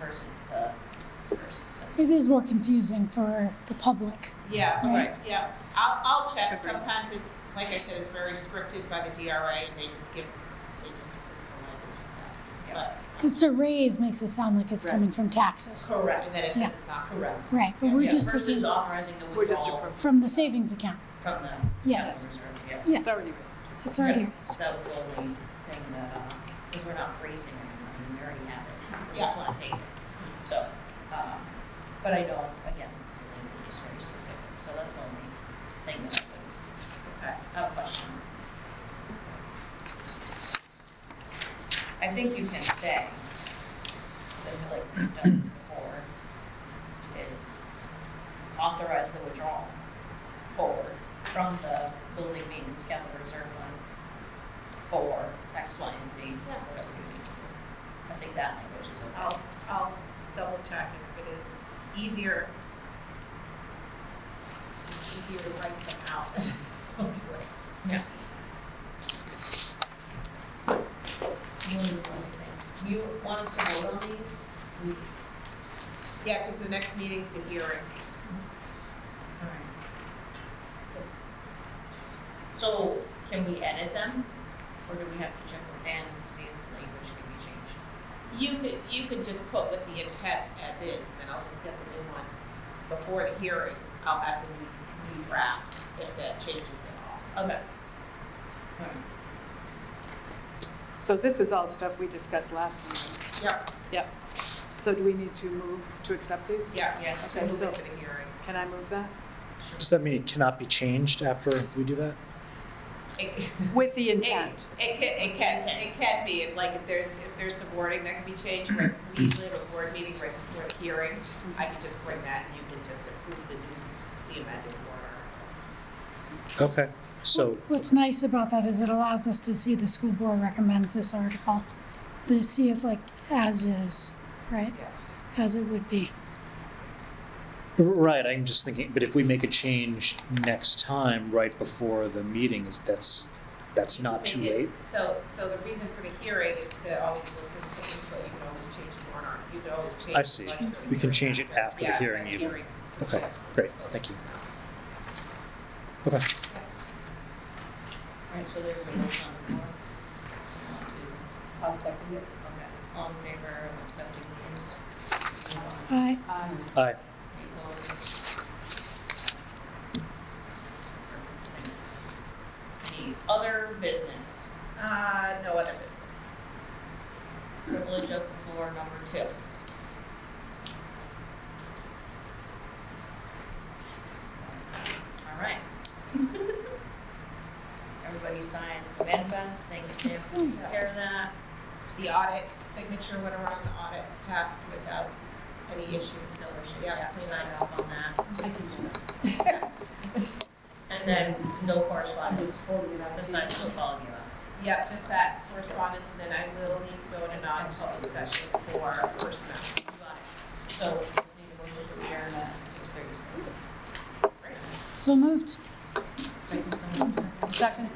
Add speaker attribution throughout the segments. Speaker 1: versus the person. So,
Speaker 2: It is more confusing for the public.
Speaker 3: Yeah,
Speaker 1: Right.
Speaker 3: yeah. I'll, I'll check.
Speaker 1: Agreed.
Speaker 3: Sometimes it's, like I said, it's very scripted by the DRA and they just give, they just give the language.
Speaker 2: Because to raise makes it sound like it's
Speaker 1: Right.
Speaker 2: coming from taxes.
Speaker 3: But,
Speaker 1: correct,
Speaker 3: and then it says it's not correct.
Speaker 1: correct.
Speaker 2: Right, but we're
Speaker 1: Yeah,
Speaker 2: just
Speaker 1: versus
Speaker 2: taking
Speaker 1: authorizing the
Speaker 4: We're just
Speaker 1: withdrawal
Speaker 2: from the savings account.
Speaker 1: from the
Speaker 2: Yes.
Speaker 1: capital reserve, yeah.
Speaker 2: Yeah.
Speaker 4: It's already raised.
Speaker 2: It's already
Speaker 1: So that was the only thing that, uh, because we're not raising it, I mean, we already have it, we just wanna take it. So, um, but I know, again, we just raised this, so that's the only thing that I would, I have a question. I think you can say, that like we've done this before, is authorize the withdrawal forward from the building maintenance capital reserve fund for X, Y, and Z, whatever you need to do. I think that language is okay.
Speaker 3: I'll, I'll double check if it is easier. Easier to write some out. I'll do it.
Speaker 1: You wanna move on to things. Do you want us to vote on these? We-
Speaker 3: Yeah, because the next meeting's the hearing.
Speaker 1: So can we edit them, or do we have to check with Dan to see if the language can be changed?
Speaker 3: You could, you could just put with the intent as is, then I'll just get the new one before the hearing. I'll have the new, new draft if that changes at
Speaker 1: Okay.
Speaker 4: So this is all stuff we discussed last meeting.
Speaker 3: all. Yep,
Speaker 4: So do we need to move to accept these?
Speaker 3: yeah, yeah,
Speaker 1: Yes.
Speaker 3: so move
Speaker 4: So-
Speaker 3: it to the hearing.
Speaker 4: Can I move that?
Speaker 1: Sure.
Speaker 5: Does that mean it cannot be changed after we do that?
Speaker 3: It,
Speaker 4: With the
Speaker 3: it,
Speaker 4: intent.
Speaker 3: it can, it can, it can be, if, like, if there's, if there's some wording that can be changed, like, we usually have a board meeting right before the hearing, I can just bring that and you can just approve the new, the amended order.
Speaker 5: Okay, so,
Speaker 2: What's nice about that is it allows us to see the school board recommends this article, to see it like as is, right?
Speaker 3: Yeah.
Speaker 2: As it would be.
Speaker 5: r- right, I'm just thinking, but if we make a change next time, right before the meeting, is that's, that's not too
Speaker 3: Make it-
Speaker 5: late?
Speaker 3: So, so the reason for the hearing is to always listen to input, you can always change the warrant, article. you can always change.
Speaker 5: I
Speaker 3: the
Speaker 5: see.
Speaker 3: budget for the
Speaker 5: We can
Speaker 3: hearing.
Speaker 5: change it after the
Speaker 3: Yeah,
Speaker 5: hearing
Speaker 3: the
Speaker 5: even.
Speaker 3: hearings.
Speaker 5: Okay, great, thank you. Okay,
Speaker 1: Alright, so there's a motion on the floor. Someone to. I'll second it. Okay, all in favor of accepting these? Anyone?
Speaker 2: I,
Speaker 5: aye,
Speaker 1: Any opposed? Any other business?
Speaker 3: Uh, no other business.
Speaker 1: Privilege of the floor number two. All right. Everybody signed the manifest, thanks Tim for taking care of that.
Speaker 3: The audit signature went around, the audit passed without any issues.
Speaker 1: No issues,
Speaker 3: Yeah,
Speaker 1: yeah,
Speaker 3: clean
Speaker 1: sign
Speaker 3: up.
Speaker 1: off on that. I can do that. And then no correspondence, besides the following us.
Speaker 3: Yeah, just that correspondence, and then I will need to go into non-public session for personnel.
Speaker 1: You got it. So we just need to go to the air at six thirty-six.
Speaker 2: so moved.
Speaker 1: Second, someone second.
Speaker 4: Second.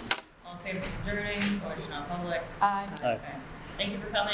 Speaker 1: All in favor of adjourning, motion on public.
Speaker 4: Aye.
Speaker 5: Aye.
Speaker 1: Okay. Thank you for coming.